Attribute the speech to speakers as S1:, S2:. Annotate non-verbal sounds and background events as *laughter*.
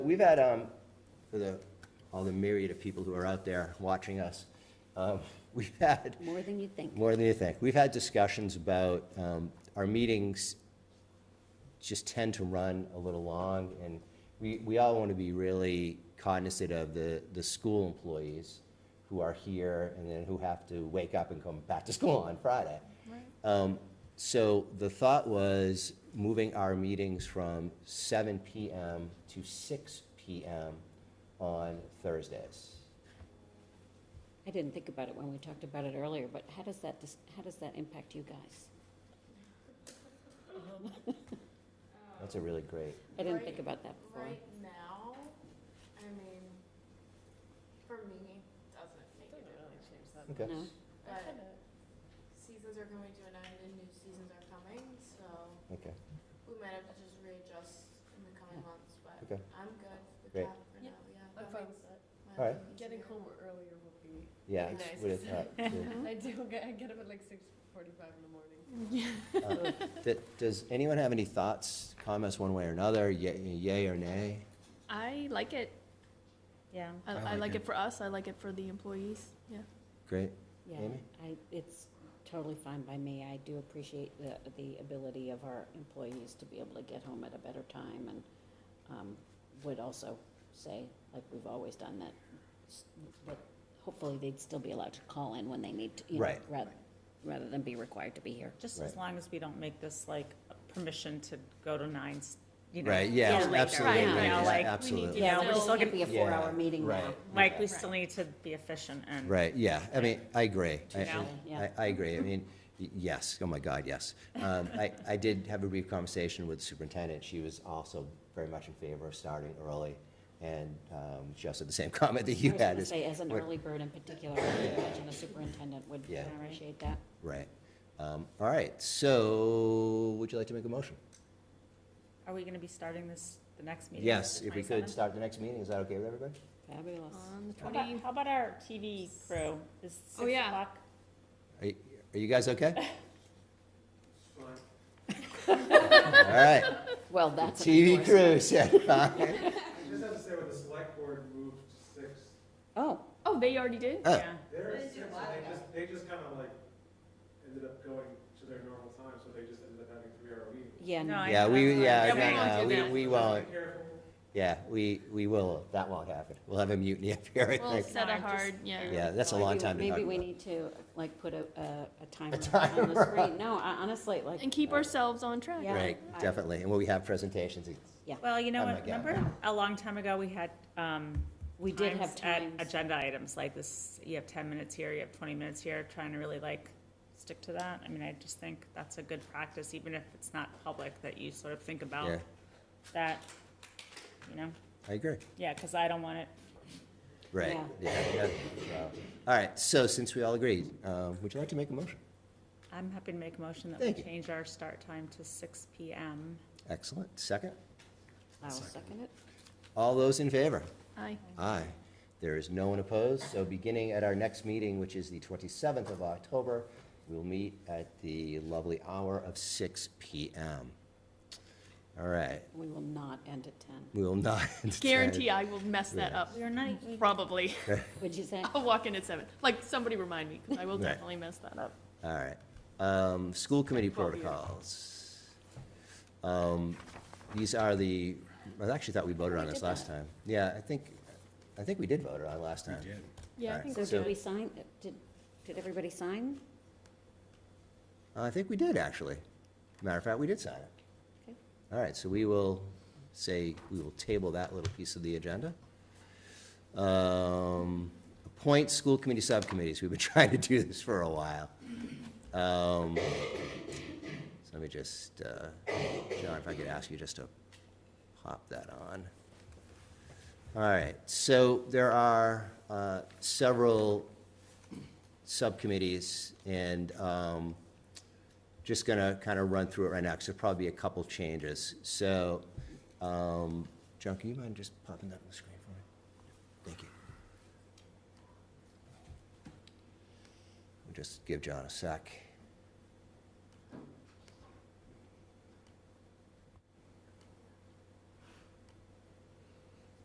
S1: We've had, um, for the, all the myriad of people who are out there watching us, um, *laughs* we've had
S2: More than you think.
S1: more than you think. We've had discussions about, um, our meetings just tend to run a little long, and we, we all want to be really cognizant of the, the school employees who are here and then who have to wake up and come back to school on Friday. Um, So the thought was moving our meetings from seven PM to six PM on Thursdays.
S2: I didn't think about it when we talked about it earlier, but how does that, dis- how does that impact you guys?
S1: That's a really great,
S2: I didn't think about that before.
S3: Right now, I mean, for me, doesn't make a difference.
S1: okay.
S2: No?
S3: But seasons are coming to an end and new seasons are coming, so
S1: Okay,
S3: we might have to just readjust in the coming months, but
S1: Okay.
S3: I'm good with
S1: Great.
S3: that for
S4: Yeah.
S3: now, yeah.
S4: I'm
S3: that
S4: fine
S3: makes
S4: with that.
S3: my
S1: All right.
S3: life
S4: uh, Getting
S3: easier.
S4: home earlier will be,
S1: yeah,
S4: Nice.
S1: it's would have thought, yeah.
S4: I do, *laughs* get- I get up at like six forty-five in the morning.
S1: Uh, th- Does anyone have any thoughts, comments one way or another, ye- yay or nay?
S5: *laughs* I like it.
S6: Yeah.
S5: I, I like it for us. I like it for the employees. Yeah.
S1: Great,
S2: Yeah,
S1: Amy?
S2: I, it's totally fine by me. I do appreciate the, the ability of our employees to be able to get home at a better time and, um, would also say, like we've always done that, s- that hopefully they'd still be allowed to call in when they need to, you know,
S1: Right.
S2: rather, rather than be required to be here.
S6: Just
S1: Right.
S6: as long as we don't make this like a permission to go to nine, s- you know.
S1: Right, yeah,
S2: Yeah,
S1: absolutely,
S6: Right, you know,
S1: yeah,
S6: like,
S1: absolutely.
S6: Yeah, we're
S2: Still
S6: still
S2: can't be
S6: gonna,
S2: a four-hour
S1: Yeah,
S2: meeting now.
S1: right.
S6: like, we still need to be efficient and.
S1: Right, yeah, I mean, I agree. I- I-
S6: Yeah.
S2: Yeah.
S1: I, I agree, I mean, y- yes, oh my God, yes. Um, I, I did have a brief conversation with the superintendent, she was also very much in favor of starting early, and um, she also had the same *laughs* comment that you
S2: I was
S1: had.
S2: gonna
S1: is-
S2: say, as an
S1: what-
S2: early bird in particular, I would imagine the superintendent would
S1: Yeah.
S2: appreciate that.
S1: Right, Um, all right, so, would you like to make a motion?
S6: Are we gonna be starting this, the next meeting?
S1: Yes,
S6: the
S1: if we could
S6: 27th?
S1: start the next meeting, is that okay with everybody?
S2: Fabulous.
S6: How about, how about our TV crew? Is six
S5: Oh, yeah.
S6: o'clock?
S1: Are you, are you guys okay? All right,
S2: Well, that's. an
S1: TV
S2: endorsement.
S1: crew said
S2: *laughs*
S1: fine.
S7: I just have to say, when the select board moved to six,
S2: Oh,
S5: Oh, they already did?
S1: Oh.
S6: Yeah.
S7: they were at six, and they just, they just kind of like ended up going to their normal time, so they just ended up having three-hour meetings.
S2: yeah,
S6: No,
S2: no.
S6: I-
S1: Yeah,
S6: I-
S1: we, yeah,
S5: Yeah, we won't
S1: no,
S5: do
S1: no,
S5: that.
S1: we, we
S7: Just be
S1: won't,
S7: careful.
S1: yeah, we, we will, that won't happen. We'll have a mutiny *laughs* up here, I
S5: Well,
S1: think.
S5: set
S6: No,
S5: a
S6: I just-
S5: hard, yeah.
S1: Yeah, that's a long time to talk
S2: Maybe we
S1: about.
S2: need to, like, put a, a a timer
S1: timer
S2: on the screen. No, I- honestly, like.
S5: And keep ourselves on track.
S2: Yeah.
S1: Right,
S2: I-
S1: definitely, and when we have presentations, it's-
S6: Well, you know
S1: Oh my
S6: what,
S1: God.
S6: remember a long time ago, we had, um.
S2: We did have
S6: at
S2: times.
S6: Agenda items, like this, you have ten minutes here, you have twenty minutes here, trying to really like stick to that. I mean, I just think that's a good practice, even if it's not public, that you sort of think
S1: yeah,
S6: about that, you know?
S1: I agree.
S6: Yeah, because I don't want it,
S1: Right,
S2: Yeah.
S1: yeah, yeah, so. All right, so since we all agreed, um, would you like to make a motion?
S6: I'm happy to make a motion that we
S1: Thank you.
S6: change our start time to six PM.
S1: Excellent, second.
S2: I will second it.
S1: All those in favor?
S5: Aye.
S1: Aye. There is no one opposed, so beginning at our next meeting, which is the 27th of October, we'll meet at the lovely hour of 6 PM. All right,
S2: We will not end at ten.
S1: we will *laughs* not.
S5: Guarantee I will mess that up.
S6: We are not, we-
S5: Probably. *laughs*
S2: Would you say?
S5: I'll walk in at seven. Like, somebody remind me, because I will
S1: Right.
S5: definitely mess that up.
S1: All right. Um, School committee
S5: Twelve years.
S1: protocols. Um, These are the, I actually thought we voted on
S2: We
S1: this
S2: did
S1: last
S2: that.
S1: time. Yeah, I think, I think we did vote on it last time.
S5: Yeah, I
S1: Alright.
S5: think
S2: So
S5: we're
S2: did we
S5: good.
S2: sign, did, did everybody sign?
S1: I think we did, actually. Matter of fact, we did sign it.
S2: Okay.
S1: All right, so we will say, we will table that little piece of the agenda. Um, Appoint school committee subcommittees. We've been *laughs* trying to do this for a while. Um, So let me just, uh, John, if I could ask you just to pop that on. All right, so there are uh, several subcommittees, and um, just gonna kind of run through it right now, because there'll probably be a couple changes. So, um, John, can you mind just popping that on the screen for me? Thank you. We'll Just give John a sec.